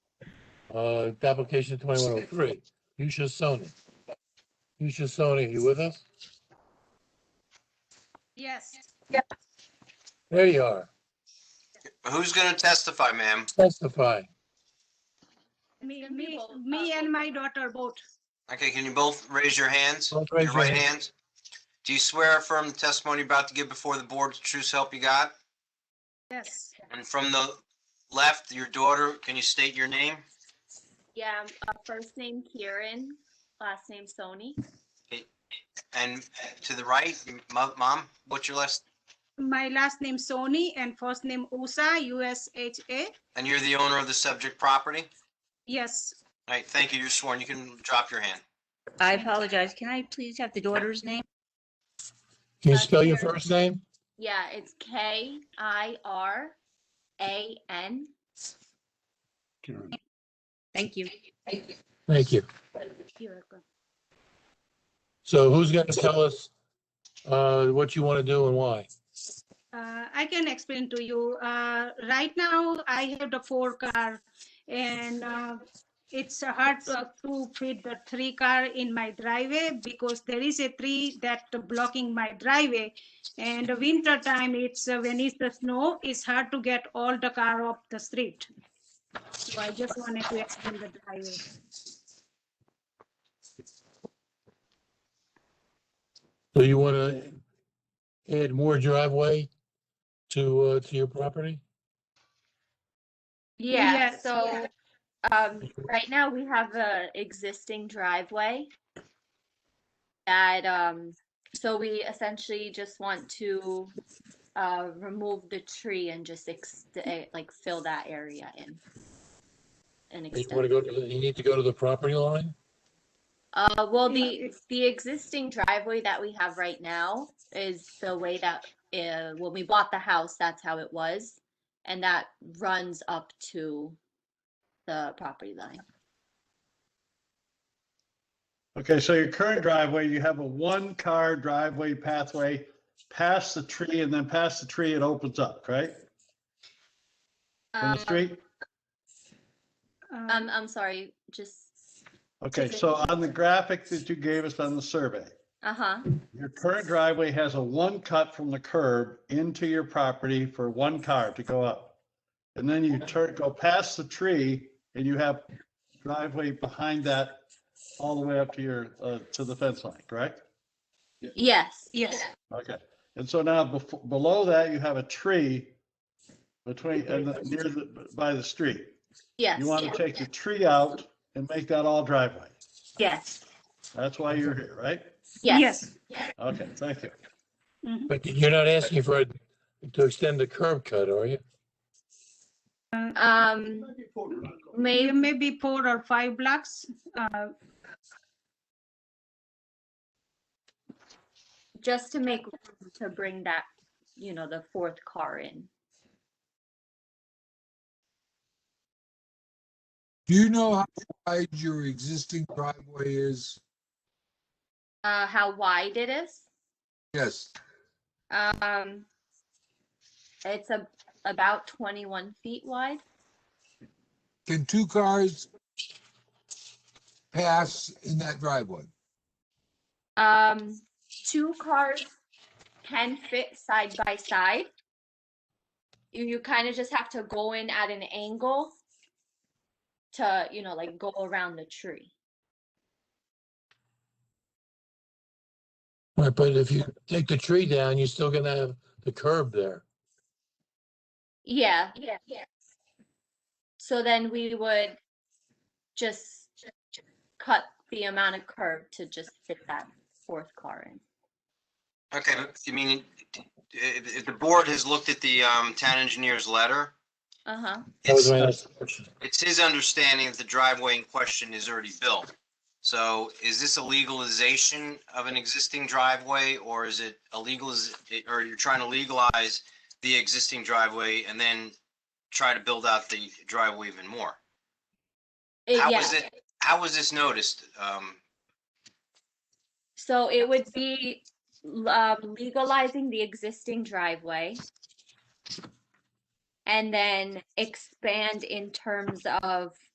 Uh, application twenty-one oh three, Yusha Sony. Yusha Sony, you with us? Yes, There you are. Who's going to testify, ma'am? Testify. me, me, uh, me and my daughter both. Okay, can you both raise your hands? Both raise Your your right hands? Do you swear or affirm the testimony you're about to give before the board is the true help you got? Yes. And from the left, your daughter, can you state your name? Yeah, uh, first name Kieran, last name Sony. And to the right, mo- mom, what's your last? My last name Sony and first name Usha, U S H A. And you're the owner of the subject property? Yes, All right, thank you. You're sworn. You can drop your hand. I apologize. Can I please have the daughter's name? Can you spell your first name? Yeah, it's K I R A N. Thank you. Thank you. So who's gonna tell us, uh, what you wanna do and why? uh, I can explain to you. Uh, right now, I have the four car and uh, it's hard to, to fit the three car in my driveway because there is a tree that blocking my driveway. And the winter time, it's uh, when it's the snow, it's hard to get all the car off the street. So I just wanted to explain the driveway. So you wanna add more driveway to, uh, to your property? Yeah, Yes, so um, right now we have a existing driveway that um, so we essentially just want to uh, remove the tree and just ex- eh, like fill that area in. And You wanna extend. go to, the- you need to go to the property line? Uh, well, Yeah, the, the existing driveway that we have right now is the way that, uh, when we bought the house, that's how it was. And that runs up to the property line. Okay, so your current driveway, you have a one-car driveway pathway past the tree and then past the tree, it opens up, right? From Um, the street? Um, I'm, I'm sorry, just, Okay, so on the graphic that you gave us on the survey, uh-huh, your current driveway has a one cut from the curb into your property for one car to go up. And then you turn, go past the tree and you have driveway behind that all the way up to your, uh, to the fence line, correct? yes. Yes. Okay, and so now bef- below that, you have a tree between, and the- near the, by the street. Yes, You want yeah, to take the tree out and make that all driveway. yes, That's why you're here, right? yes. Okay, thank you. mhm. But you're not asking for, it to extend the curb cut, are you? Um, Yeah, maybe, Maybe four or five blocks. Uh, just to make, room to bring that, you know, the fourth car in. Do you know how wide your existing driveway is? Uh, how wide it is? Yes, Um, it's a, about twenty-one feet wide. can two cars pass in that driveway? Um, two cars can fit side by side. You, you kind of just have to go in at an angle to, you know, like go around the tree. Right, but if you take the tree down, you're still gonna have the curb there. Yeah, yeah, yeah. So then we would just cut the amount of curb to just fit that fourth car in. Okay, but you mean, if, if the board has looked at the, um, town engineer's letter, Uh-huh. That was it's- uh, my next question. it's his understanding that the driveway in question is already built. So is this a legalization of an existing driveway or is it a legal, or you're trying to legalize the existing driveway and then try to build out the driveway even more? It- How Uh, yeah. was it, how was this noticed? Um, So it would be l- um, legalizing the existing driveway. And then expand in terms of